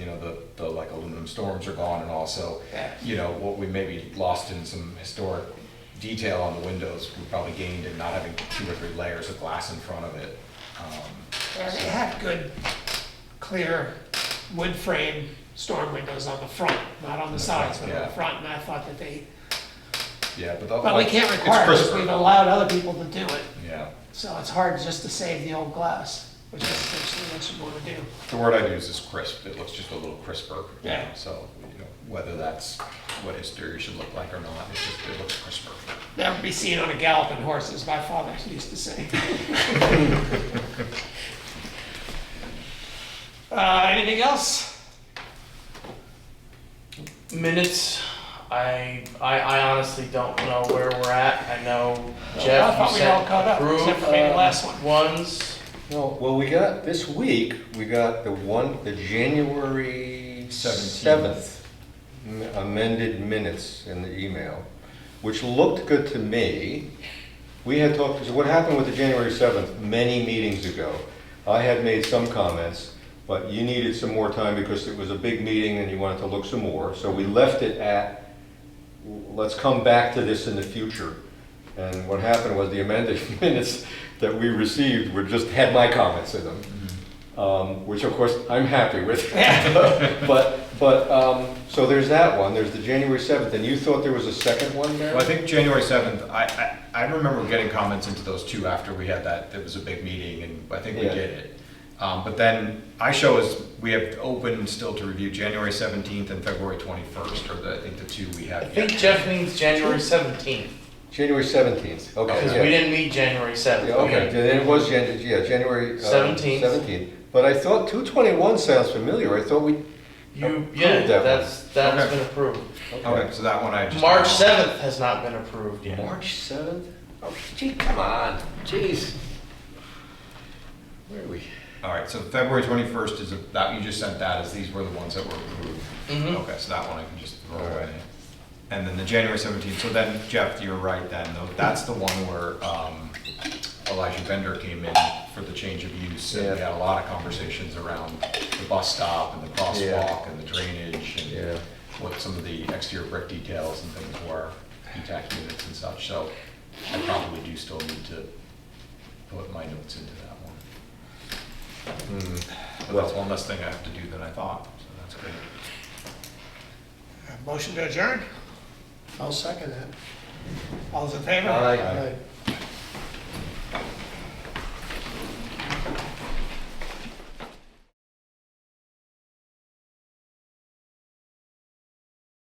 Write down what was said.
the like aluminum storms are gone and also, Yeah. you know, what we maybe lost in some historic detail on the windows, we probably gained in not having two or three layers of glass in front of it. Um, Yeah, They have good, clear wood frame storm windows on the front, not on the sides, but on Yeah. the front, and I thought that they, Yeah, but the. but we like, can't it's require it, 'cause crisper. we've allowed other people to do it. Yeah, So it's hard just to save the old glass, which is essentially what you want to do. the word I'd use is crisp, it looks just a little crisper. you know, Yeah. So, you know, whether that's what history should look like or not, it just, it looks crisper. Never be seen on a galloping horse, as my father used to say. Uh, anything else? minutes. I, I I honestly don't know where we're at. I know I Jeff. thought you we said all caught up, approve, except for maybe the uh, last one. Ones. No, well, we got, this week, we got the one, the January Seventeenth. seventh amended minutes in the email, which looked good to me. We had talked, so what happened with the January seventh, many meetings ago, I had made some comments, but you needed some more time because it was a big meeting and you wanted to look some more, so we left it at let's come back to this in the future. And what happened was the amended minutes that we received were just, had my comments in them, Mm-hmm. um, which of course I'm happy with. But, but, um, so there's that one, there's the January 7th, and you thought there was a second one there? Well, I think January seventh, I, I, I remember getting comments into those two after we had that, it was a big meeting and I think we Yeah. did it. Um, but then I show is, we have open still to review January seventeenth and February twenty-first are the, I think the two we I have. think yet. Jeff means January seventeenth January 17th, because okay. we yeah. didn't meet January seventh. Yeah, okay, then it was, Jan- yeah, January. uh, 17th. 17th, but I thought 221 sounds familiar, I thought we, You Approved yeah. that one. that's that's Okay. been approved. Okay, so that one I just. March seventh has not been approved yet. March 7th? Oh, gee, come on, jeez. Where are we? All right, so February twenty-first is, a- that, you just sent that as these were the ones that were approved. Mhm. Okay, so that one I can just throw All right. away. And then the January seventeenth, so then Jeff, you're right then, though, that's the one where, um, Elijah Bender came in for the change of use. And we Yeah. had a lot of conversations around the bus stop and the crosswalk and the drainage Yeah. and what some of the exterior brick details and things were, intact units and such, so I probably do still need to put my notes into that one. But that's one less thing I have to do than I thought, so that's great. Motion to adjourn? I'll second that. All those in favor? Aye.